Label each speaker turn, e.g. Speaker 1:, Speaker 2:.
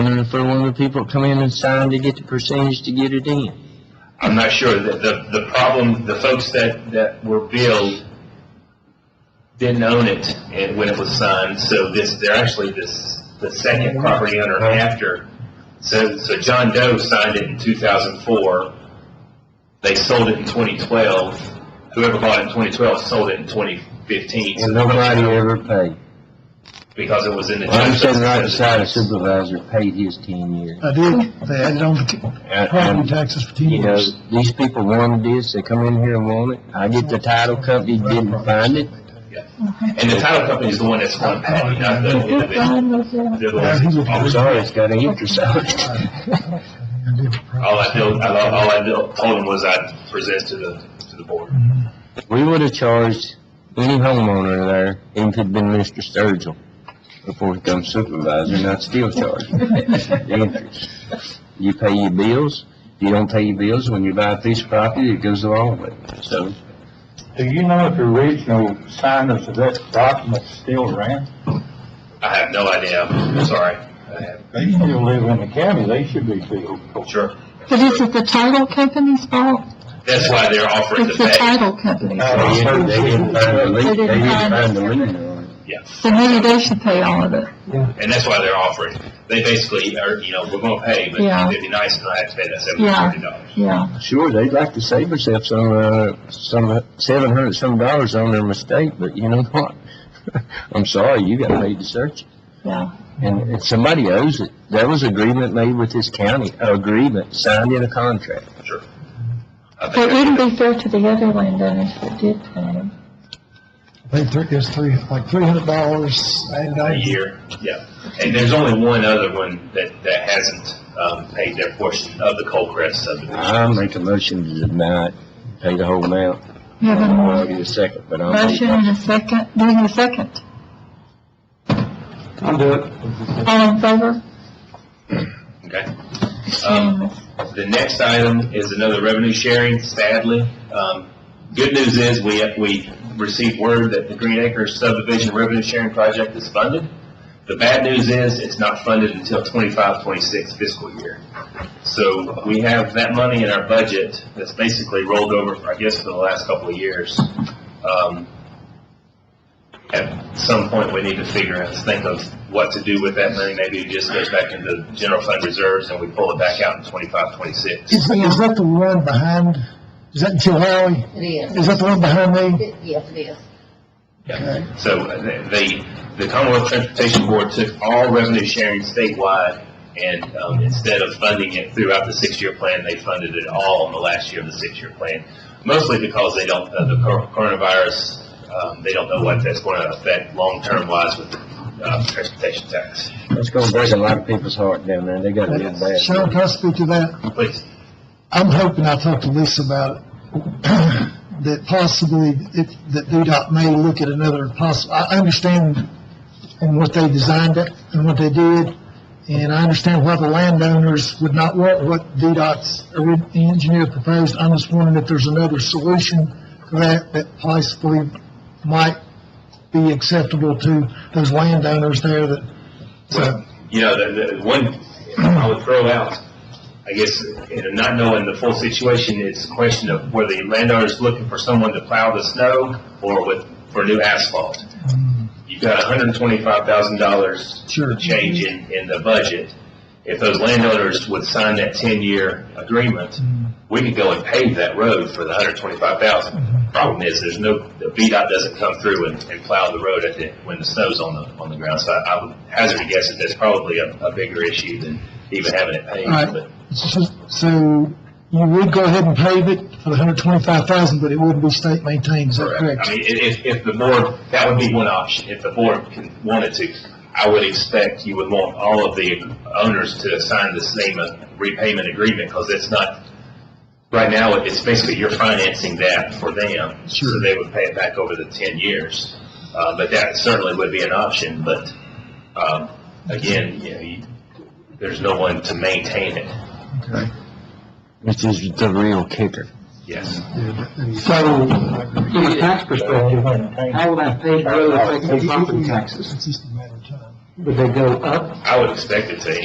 Speaker 1: gonna throw one of the people that come in and sign to get the percentage to get it in.
Speaker 2: I'm not sure. The, the, the problem, the folks that, that were billed didn't own it and when it was signed, so this, they're actually this, the second property owner after. So, so John Doe signed it in two thousand four. They sold it in twenty twelve. Whoever bought it in twenty twelve sold it in twenty fifteen.
Speaker 1: And nobody ever paid.
Speaker 2: Because it was in the.
Speaker 1: I'm sitting right beside a supervisor, paid his ten years.
Speaker 3: I did, they added on the t-
Speaker 2: Uh,
Speaker 1: And-
Speaker 2: um,
Speaker 3: property
Speaker 1: and,
Speaker 3: taxes for ten
Speaker 1: You know,
Speaker 3: years.
Speaker 1: these people wanted this, they come in here and want it. I get the title company, didn't find it.
Speaker 2: And the title company is the one that's on pay, not the individual. They're the ones that
Speaker 1: I'm
Speaker 2: always-
Speaker 1: sorry, it's got an interest on it.
Speaker 2: All I did, all I all I did- told him was I'd present to the, to the board.
Speaker 1: We would have charged any homeowner there, even if it'd been Mr. Sturgill, before he become supervisor, and I'd still charge him the interest. You pay your bills, if you don't pay your bills, when you buy a piece of property, it goes along with it, so.
Speaker 4: Do you know if the original signers of that document still ran?
Speaker 2: I have no idea, I'm sorry. I have-
Speaker 4: They still live in the county, they should be billed.
Speaker 2: Sure.
Speaker 5: But is it the title company's fault?
Speaker 2: That's why they're offering the
Speaker 5: It's the
Speaker 2: pay.
Speaker 5: title company's
Speaker 4: Uh,
Speaker 1: They didn't
Speaker 5: fault.
Speaker 1: they didn't find the lien, they didn't find the lien on it.
Speaker 2: Yes,
Speaker 5: So maybe they should pay all of it.
Speaker 2: and that's why they're offering. They basically are, you know, we're gonna pay, but
Speaker 5: Yeah.
Speaker 2: it'd be nice if I had to pay that seven
Speaker 5: Yeah.
Speaker 2: hundred and fifty dollars.
Speaker 5: Yeah,
Speaker 1: Sure, they'd like to save themselves some, uh, some, seven hundred some dollars on their mistake, but you know what? I'm sorry, you got paid to search it.
Speaker 5: yeah.
Speaker 1: And if somebody owes it, there was agreement made with this county, a agreement signed in a contract.
Speaker 2: I
Speaker 5: But it wouldn't
Speaker 2: think
Speaker 5: be fair to the other landowners that did pay them.
Speaker 3: They took us three, like three hundred dollars and
Speaker 2: a
Speaker 3: I,
Speaker 2: year, yeah. And there's only one other one that, that hasn't, um, paid their portion of the Colcrest
Speaker 4: Uh-huh.
Speaker 2: subdivision.
Speaker 1: I make a motion to deny it, pay the whole amount.
Speaker 5: You have a
Speaker 1: I'll
Speaker 5: mo-
Speaker 1: give you a second, but I'll.
Speaker 5: motion and a second, doing a second.
Speaker 4: I'll do it.
Speaker 5: All in favor?
Speaker 2: Okay?
Speaker 5: It's unanimous.
Speaker 2: The next item is another revenue sharing, sadly. Um, Good news is, we, we received word that the Green Acres subdivision revenue sharing project is funded. The bad news is, it's not funded until 25-26 fiscal year. So we have that money in our budget that's basically rolled over, I guess, for the last couple of years. Um, At some point, we need to figure out, think of what to do with that money. Maybe it just goes back into general fund reserves and we pull it back out in 25-26.
Speaker 3: is that, is that the one behind, is that in Chilhowee?
Speaker 6: It is.
Speaker 3: Is that the one behind me?
Speaker 6: It- Yes, it is.
Speaker 3: Okay.
Speaker 2: So uh, the, the Commonwealth Transportation Board took all revenue sharing statewide, and um, instead of funding it throughout the six-year plan, they funded it all in the last year of the six-year plan, mostly because they don't, uh, the cor- coronavirus, um, they don't know what that's going to affect long-term wise with uh, transportation tax.
Speaker 1: It's gonna break a lot of people's heart down there, they got a little bad.
Speaker 3: Sean, can I speak to that?
Speaker 2: Please,
Speaker 3: I'm hoping, I talked to Lisa about it, that possibly, if, that VDOT may look at another possible, I, I understand and what they designed it and what they did, and I understand why the landowners would not want what VDOT's ori- engineer proposed. I'm just wondering if there's another solution to that that possibly might be acceptable to those landowners there that, so,
Speaker 2: you know, the, the one I would throw out, I guess, you know, not knowing the full situation, it's a question of whether the landowner is looking for someone to plow the snow or with, for new asphalt. You've got hundred and twenty-five thousand dollars
Speaker 3: Sure.
Speaker 2: change in, in the budget. If those landowners would sign that ten-year agreement, we could go and pave that road for the hundred and twenty-five thousand. Problem is, there's no, the VDOT doesn't come through and, and plow the road at the, when the snow's on the, on the ground. So I, I would hazard a guess that that's probably a, a bigger issue than even having it paved,
Speaker 3: Right.
Speaker 2: but
Speaker 3: so- so you would go ahead and pave it for the hundred twenty-five thousand, but it wouldn't be state maintained, is that
Speaker 2: Correct.
Speaker 3: correct?
Speaker 2: I mean, i- if, if the board, that would be one option. If the board can- wanted to, I would expect you would want all of the owners to sign the same uh, repayment agreement, because it's not, right now, it's basically you're financing that for them. So they would pay it back over the ten years. Uh, but that certainly would be an option, but, um, again, you know, you, there's no one to maintain it.
Speaker 1: Which is the real kicker.
Speaker 2: Yes.
Speaker 7: So, from a tax perspective, how would I pay road affecting property taxes?
Speaker 3: It's just a matter of time.
Speaker 7: Would they go up
Speaker 2: I would expect it to